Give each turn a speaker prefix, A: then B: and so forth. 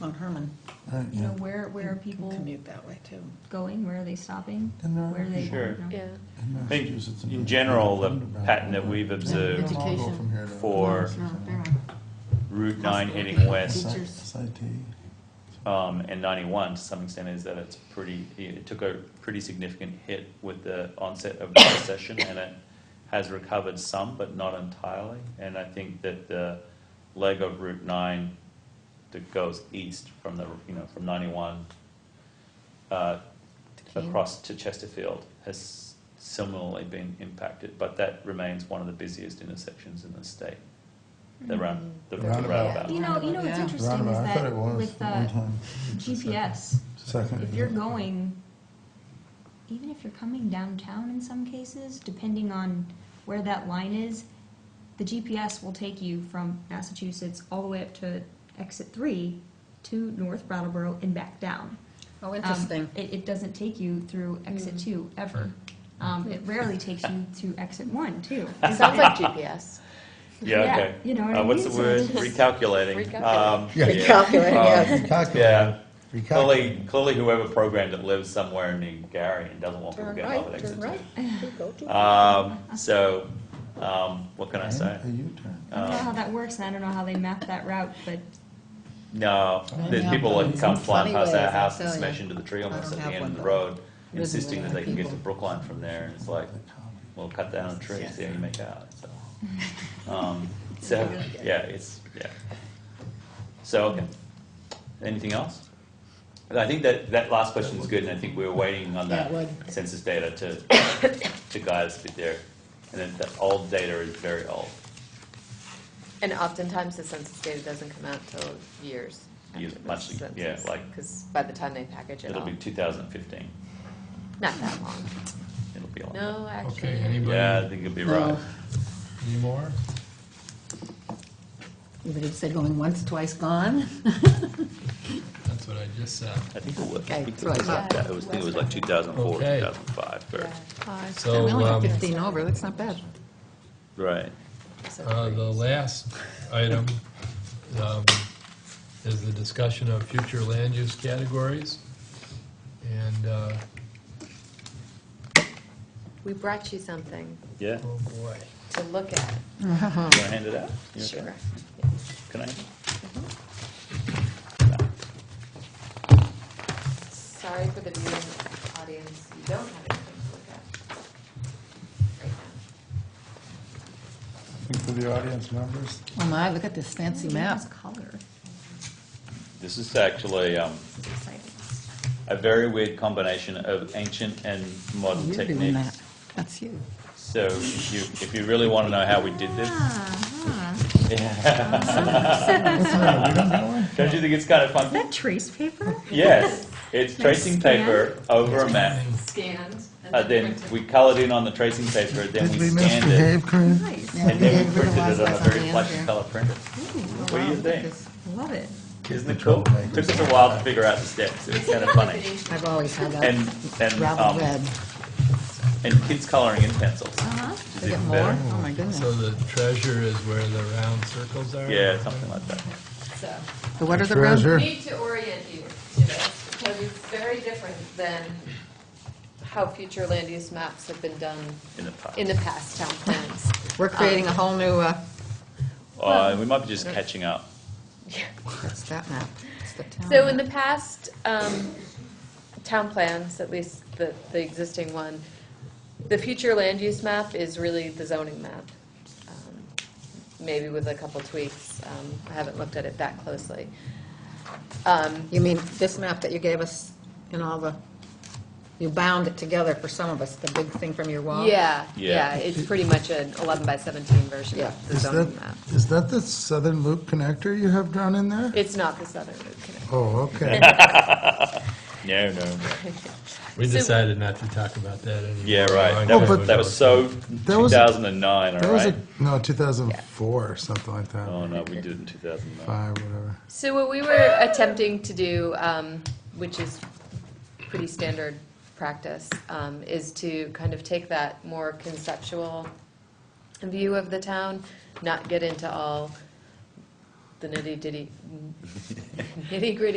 A: Mount Herman.
B: Right,
C: You know,
B: yeah.
C: where, where are
A: You can
C: people
A: Commute that way too.
C: going? Where are they stopping?
B: And there
C: Where are
B: are-
C: they
D: Sure.
C: going?
E: Yeah,
B: In
D: I think
B: Massachusetts and
D: in general, the
B: Underground.
D: pattern that we've observed
B: They don't all go
E: Education
B: from here to-
D: for
E: No, they're on.
D: Route 9 heading west
B: Site-
E: Teachers.
B: Site
D: um, and 91 to some extent is that it's pretty, it took a pretty significant hit with the onset of the recession and it has recovered some, but not entirely. And I think that the leg of Route 9 that goes east from the, you know, from 91 uh, across to Chesterfield has similarly been impacted, but that remains one of the busiest intersections in the state, the round, the the
B: Roundabout.
D: roundabout.
C: You know, you know what's
E: Mm-hmm. Yeah.
C: interesting is
B: Roundabout. I thought it
C: that
B: was
C: with
B: one
C: uh,
B: time.
C: GPS,
B: Second.
C: if you're going, even if you're coming downtown in some cases, depending on where that line is, the GPS will take you from Massachusetts all the way up to exit three to North Brattleboro and back down.
E: Oh,
C: Um,
E: interesting.
C: It, it doesn't take you through exit two ever. Um, it rarely takes you to exit one too.
E: It sounds like GPS.
D: Yeah,
C: Yeah,
D: okay.
C: you know what
D: Uh,
C: I
D: What's the
C: mean?
D: word?
C: So it's-
D: Recalculating.
E: Recalculating.
D: Um,
B: Yeah.
D: yeah. Um, Yeah.
B: Recalculating.
D: Clearly, clearly whoever programmed it lives somewhere in New Gary and doesn't want people
E: Turn
D: to go over
E: right,
D: the exit.
E: turn right. We go to-
D: Um, so, um, what can I say?
B: A U-turn.
C: I don't know
D: Um,
C: how that works, and I don't know how they map that route, but
D: No,
B: I
D: there's
A: have
D: people
A: them
D: that
A: in
D: come
A: some
D: flying
E: funny
D: past
E: ways,
D: our
E: I
D: house and
E: tell ya.
D: smash into the tree
A: I
D: almost
A: don't
D: at the
A: have
D: end of
A: one,
D: the
A: but
D: road,
A: with
D: insisting that they can get to
A: people.
D: Brookline from there. And it's like, well, cut down a tree, see how you make out, so. Um, so, yeah, it's, yeah. So, okay. Anything else? And I think that, that last question is good, and I think we were waiting on that
E: Yeah, it would.
D: census data to, to guide us a bit there. And then the old data is very old,
E: And oftentimes, the census data doesn't come out till years.
D: Years,
E: after the
D: much, yeah,
E: census,
D: like-
E: Because by the time they package it
D: it'll
E: all,
D: be two thousand fifteen,
E: not that long.
D: it'll be old.
E: No, Oh. actually,
F: Okay, anybody,
D: Yeah, I think you'll be right.
F: any more?
G: Everybody said going once, twice, gone.
F: That's what I just said.
D: I think it was, I
G: Okay,
D: think it
G: right.
D: was like that, I was, I think it was like two thousand four, two
F: Okay.
D: thousand five, or,
F: So,
G: We only have
F: um,
G: 15 over, that's not bad.
D: right.
E: so
F: uh, the last item, um, is the discussion of future land use categories. And, uh,
E: we brought you something
D: Yeah,
F: oh boy,
E: to look at.
D: you wanna hand it out? You okay?
E: Sure.
D: Can I?
E: Sorry for the viewing audience, you don't have anything to look at right now.
B: I think for the audience members,
G: Oh my, look at this fancy map.
C: It's color.
D: This is actually, um,
C: It's exciting.
D: a very weird combination of ancient and modern
G: You're doing that.
D: techniques.
G: That's you.
D: So if you, if you really wanna know how we did this,
C: Ah, huh.
G: Ah.
D: don't you think it's kind of
C: Is
D: fun?
C: that trace paper?
D: Yes, it's tracing
C: scan.
D: paper over a map,
E: Scanned. and
D: uh, then
E: printed.
D: we colored in on the tracing paper, then
B: did we
D: we scanned it,
B: misbehave, Corinne?
C: Nice.
G: Yeah,
D: and then we
G: did. We're the
D: printed
G: last
D: it on
G: ones
D: a
G: on
D: very
G: the
D: flashy
G: end
D: color printer.
G: here.
D: What do you
G: Wow, look at
D: think?
G: this.
C: Love it.
D: Isn't it cool? Took us a while to figure out the steps, it was kind of funny.
G: I've always had
D: And,
G: that
D: and,
G: rather
D: um,
G: red.
D: and kids coloring in pencils,
C: Uh-huh.
D: which is
G: Is it
D: even
G: more?
D: better.
G: Oh my goodness.
F: so the treasure is where the round circles are?
D: Yeah, something like that.
E: So,
G: So what are the roads?
B: Treasure.
E: need to orient you to this, because it's very different than how future land use maps have been done
D: In the past.
E: in the past, town plans. Um,
G: We're creating a whole new, uh,
D: Uh, we might be just catching up.
G: what's that map? It's the town
E: So in the
G: map.
E: past, um, town plans, at least the, the existing one, the future land use map is really the zoning map, um, maybe with a couple tweaks. Um, I haven't looked at it that closely. Um,
G: You mean this map that you gave us in all the, you bound it together for some of us, the big thing from your wall?
E: Yeah,
D: Yeah.
E: yeah, it's pretty much an 11 by 17 version
G: Yeah.
E: of the
B: Is that,
E: zoning map.
B: is that the Southern Loop connector you have drawn in there?
E: It's not the Southern Route Canal.
B: Oh, okay.
D: No, no, no.
F: We
E: So-
F: decided not to talk about that anymore.
D: Yeah, right.
F: Oh,
D: That
B: but-
D: was, that was so
B: That was-
D: 2009, all
B: That was
D: right?
B: a, no, 2004 or something like that.
D: Oh, no, we did it in 2009.
B: Five, whatever.
E: So what we were attempting to do, um, which is pretty standard practice, um, is to kind of take that more conceptual view of the town, not get into all the nitty-ditty, nitty-gritty